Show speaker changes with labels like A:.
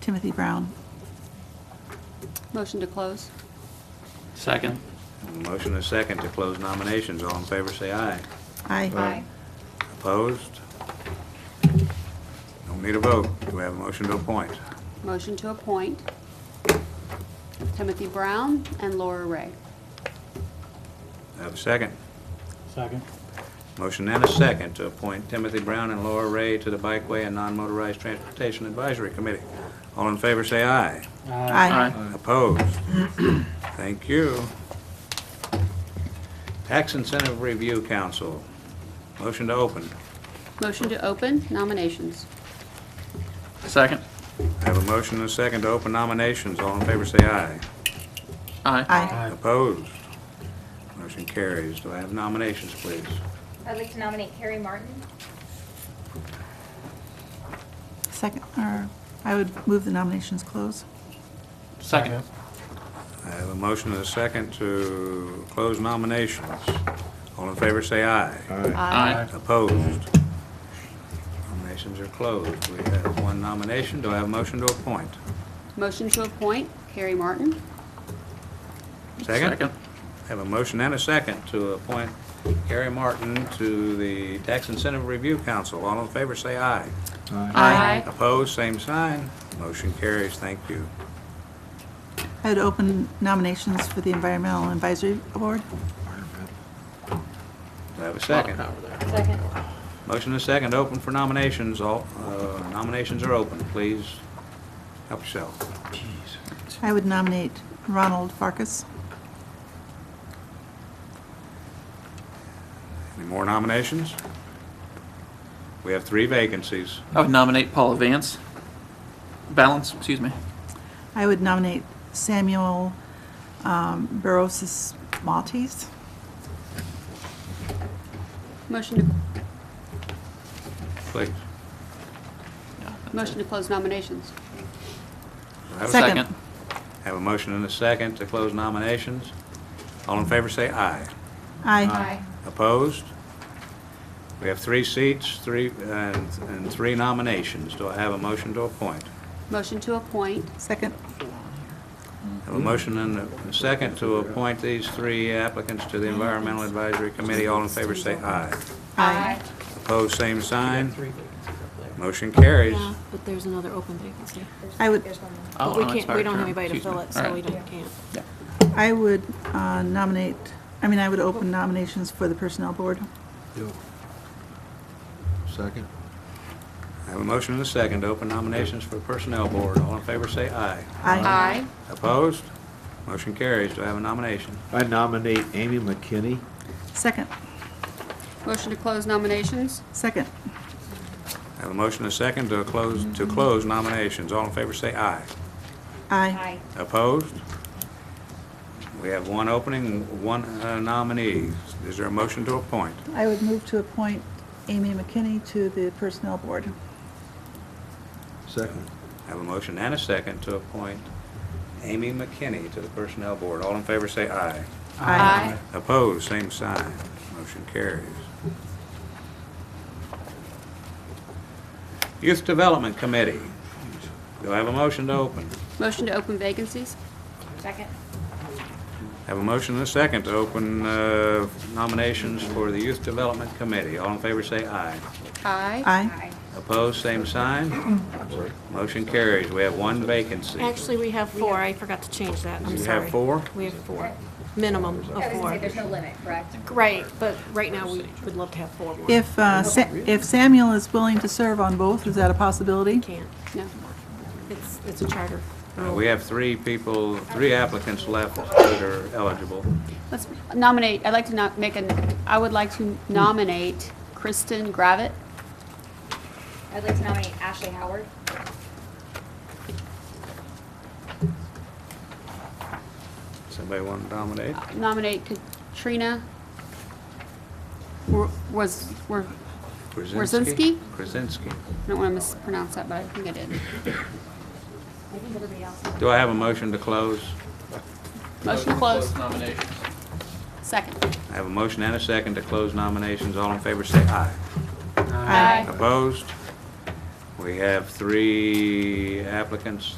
A: Timothy Brown.
B: Motion to close.
C: Second.
D: Motion and a second to close nominations. All in favor, say aye.
A: Aye.
D: Opposed? Don't need a vote. Do we have a motion to appoint?
B: Motion to appoint Timothy Brown and Laura Ray.
D: Have a second?
E: Second.
D: Motion and a second to appoint Timothy Brown and Laura Ray to the Bikeway and Non-Motorized Transportation Advisory Committee. All in favor, say aye.
A: Aye.
D: Opposed? Thank you. Tax Incentive Review Council. Motion to open.
B: Motion to open nominations.
C: Second.
D: Have a motion and a second to open nominations. All in favor, say aye.
C: Aye.
A: Aye.
D: Opposed? Motion carries. Do I have nominations, please?
F: I'd like to nominate Carrie Martin.
A: Second, or I would move the nominations close.
C: Second.
D: I have a motion and a second to close nominations. All in favor, say aye.
C: Aye.
D: Opposed? Nominations are closed. We have one nomination. Do I have a motion to appoint?
B: Motion to appoint Carrie Martin.
D: Second? I Have a motion and a second to appoint Gary Martin to the Tax Incentive Review Council. All in favor, say aye.
A: Aye.
D: Opposed, same sign. Motion carries. Thank you.
A: I would open nominations for the Environmental Advisory Board.
D: Do I have a
C: Lot of
D: second?
C: power there.
F: Second.
D: Motion and a second, open for nominations. All, uh, nominations are open. Please help yourself.
A: I would nominate Ronald Farkas.
D: Any more nominations? We have three vacancies.
C: I would nominate Paula Vance. Balance, excuse me.
A: I would nominate Samuel um, Barosis Maltese.
B: Motion
D: Please.
B: to, motion to close nominations.
D: Do I have a
A: Second.
D: Have a motion and a second to close nominations. All in favor, say aye.
A: Aye.
D: Opposed? We have three seats, three, and and three nominations. Do I have a motion to appoint?
B: Motion to appoint.
A: Second.
D: Have a motion and a second to appoint these three applicants to the Environmental Advisory Committee. All in favor, say aye.
A: Aye.
D: Opposed, same sign. Motion carries.
G: Yeah, but there's another open vacancy.
A: I would-
F: There's one more.
C: Oh,
G: But we
C: an
G: can't, we
C: expired
G: don't have
C: term.
G: anybody to
C: Excuse me.
G: fill it,
C: All
G: so
C: right.
G: we don't, can't.
A: I would uh, nominate, I mean, I would open nominations for the Personnel Board.
H: Second?
D: I have a motion and a second to open nominations for Personnel Board. All in favor, say aye.
A: Aye.
B: Aye.
D: Opposed? Motion carries. Do I have a nomination?
H: I nominate Amy McKinney.
A: Second.
B: Motion to close nominations.
A: Second.
D: I have a motion and a second to close, to close nominations. All in favor, say aye.
A: Aye.
F: Aye.
D: Opposed? We have one opening, one uh, nominee. Is there a motion to appoint?
A: I would move to appoint Amy McKinney to the Personnel Board.
H: Second.
D: I have a motion and a second to appoint Amy McKinney to the Personnel Board. All in favor, say aye. Opposed, same sign. Motion carries. Youth Development Committee. Do I have a motion to open?
B: Motion to open vacancies.
F: Second.
D: Have a motion and a second to open uh, nominations for the Youth Development Committee. All in favor, say aye.
B: Aye.
A: Aye.
F: Aye.
D: Opposed, same sign. Motion carries. We have one vacancy. Uh,
G: Actually, we have four, I forgot to change that, I'm
D: You
G: sorry.
D: have four?
G: We have four, minimum of
F: I was gonna say,
G: four.
F: there's no limit, correct?
G: Right, but right now, we would love to have four more.
A: If, uh, Sa- if Samuel is willing to serve on both, is that a possibility?
G: Can't,
B: No.
G: it's, it's a charter.
D: Uh, We have three people, three applicants left that are eligible.
B: Let's nominate, I'd like to not make a, I would like to nominate Kristen Gravett.
F: I'd like to nominate Ashley Howard.
D: Somebody want to nominate?
B: Nominate Katrina Wor- was, were, Wrzezinski?
D: Krasinski.
B: I don't want to mispronounce that, but I think I did.
F: I think everybody else.
D: Do I have a motion to close?
B: Motion to close.
C: nominations.
B: Second.
D: I have a motion and a second to close nominations. All in favor, say aye.
A: Aye.
D: Opposed? We have three applicants,